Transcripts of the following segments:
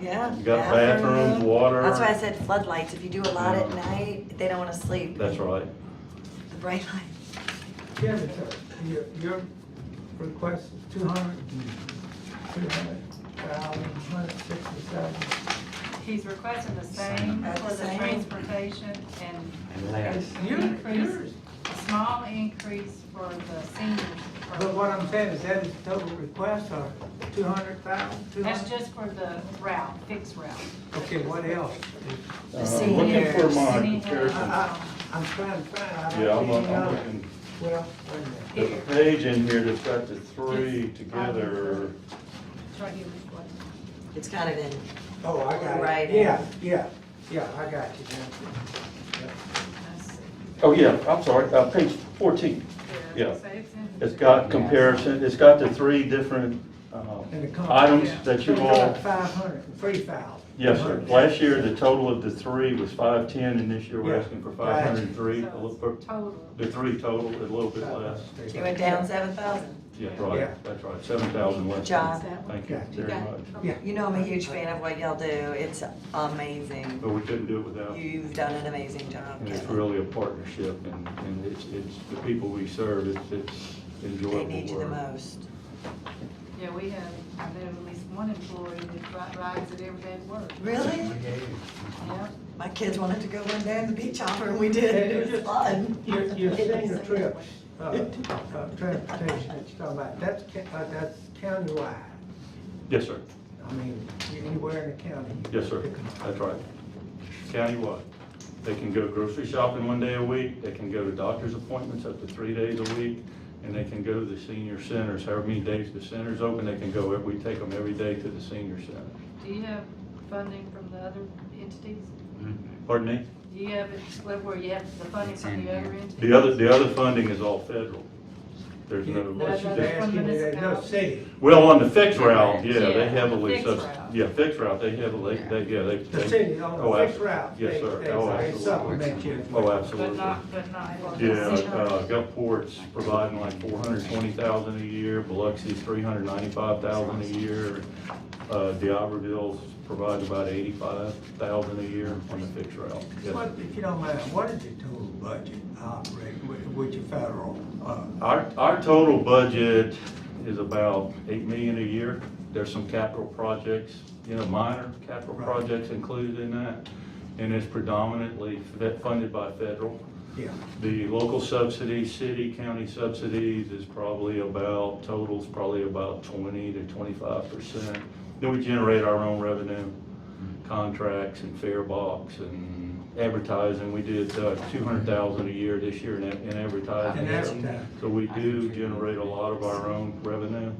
Yeah. You got bathrooms, water. That's why I said floodlights. If you do a lot at Yeah. night, they don't wanna sleep. That's right. The bright light. Yeah, but uh, your, your request is two hundred, two hundred thousand, one hundred sixty-seven. He's requesting the same That's for the the same. transportation and And last, Yours, yours. increase, a small increase for the seniors. for- But what I'm saying is that is total request or two hundred thousand, two That's hundred? just for the route, fixed route. Okay, what else? Uh, I'm Looking for my comparison. I, I, I'm trying to find, I Yeah, I'm, don't see any I'm other. looking, Well, wait a minute. there's a page in here that's got the three together. Try to get this one. It's kind of in, Oh, I got Right. it. Yeah, yeah, yeah, I got you. now. Let's see. Oh, yeah, I'm sorry, uh, page fourteen. Yeah. So it's in- It's got comparison, it's got the three different, uh, And the comp- items Yeah. that So you it's all. like Five hundred, three thousand. Yes, sir. Last year, the total of the three was five-ten, and this year we're Yeah. asking for five-hundred-and-three, a little, So it's per- Total. the three total, a little bit less. it went down seven thousand. Yeah, Yeah. right, that's right, seven thousand less. John. Thank you You very got it. much. Yeah. You know I'm a huge fan of what y'all do. It's amazing. But we couldn't do it without, and You've done an amazing job, Oh, it's Kevin. really a partnership, and, and it's, it's the people we serve, it's, it's They enjoyable need you the work. most. Yeah, we have, I know at least one employee that ri- rides it every day to work. Really? Yeah. My kids wanted to go one day on the beach hopper and we did. It was fun. Your, your senior trips, uh, uh, transportation that you're talking about, that's, ca- uh, that's countywide. Yes, sir. I mean, anywhere in the county. Yes, sir. That's right. Countywide. They can go grocery shopping one day a week, they can go to doctor's appointments up to three days a week, and they can go to the senior centers, however many days the center's open, they can go, we take them every day to the senior center. Do you have funding from the other entities? Pardon me? Do you have it split where you have the funding It's from in the other here. entities? The other, the other funding is all federal. There's What she's no, That's from asking, there's no municipality. city. well, on the fixed route, yeah, Yeah, they heavily, fixed subs- route. yeah, fixed route, they heavily, they, yeah, they. The they- city on oh, the fixed absolutely. route. Yes, they- sir. they- Oh, they absolutely. Supplement you. Oh, But absolutely. not, but not. Yeah, uh, Gulfport's providing like four hundred twenty thousand a year, Biloxi's three hundred ninety-five thousand a year. Uh, D'Iberville's providing about eighty-five thousand a year on the fixed route. Yes. What, if you don't mind, what is your total budget operate with, with your federal, uh, Our, our total budget is about eight million a year. There's some capital projects, you know, minor capital Right. projects included in that. And it's predominantly fe- funded by federal. yeah, The local subsidy, city, county subsidies is probably about, total's probably about twenty to twenty-five percent. Then we generate our own revenue, contracts and fair box and advertising. We did uh, two hundred thousand a year this year in ad- in and advertising. advertising? So we do generate a lot of our own revenue.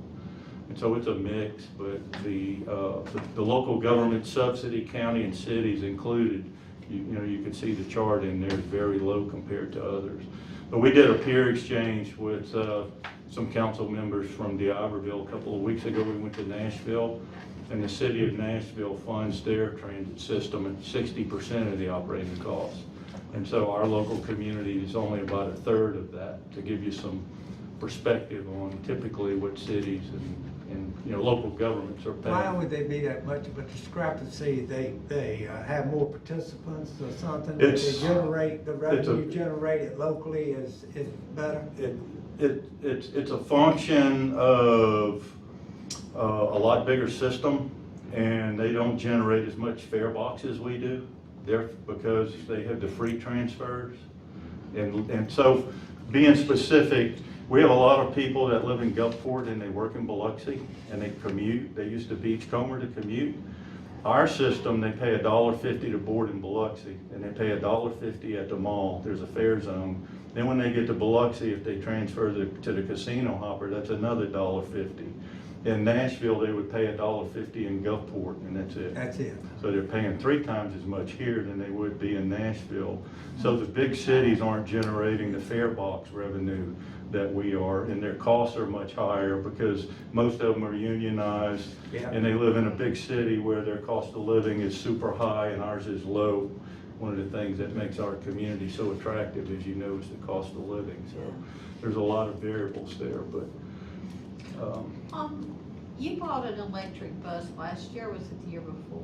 And so it's a mix, but the, uh, the- the local government subsidy, county and cities included, you you know, you can see the chart in there is very low compared to others. But we did a peer exchange with uh, some council members from DeIverville a couple of weeks ago. We went to Nashville, and the city of Nashville funds their transit system at sixty percent of the operating costs. And so our local community is only about a third of that, to give you some perspective on typically what cities and, and, you know, local governments are paying. Why would they be that much of a discrepancy? They, they uh, have more participants or something? that They It's- generate, the it's a- revenue generated locally is, is better? it, it, it's, it's a function of uh, a lot bigger system, and they don't generate as much fare box as we do. They're, because they have the free transfers. And, and so, being specific, we have a lot of people that live in Gulfport and they work in Biloxi, and they commute, they use the Beachcomber to commute. Our system, they pay a dollar fifty to board in Biloxi, and they pay a dollar fifty at the mall, there's a fair zone. Then when they get to Biloxi, if they transfer the, to the casino hopper, that's another dollar fifty. In Nashville, they would pay a dollar fifty in Gulfport, and that's it. That's it. So they're paying three times as much here than they would be in Nashville. So the big cities aren't generating the fare box revenue that we are, and their costs are much higher because most of them are unionized. Yeah. And they live in a big city where their cost of living is super high and ours is low. One of the things that makes our community so attractive, as you know, is the cost of living. So there's a lot of variables there, but, um, Um, you bought an electric bus last year, or was it the year before?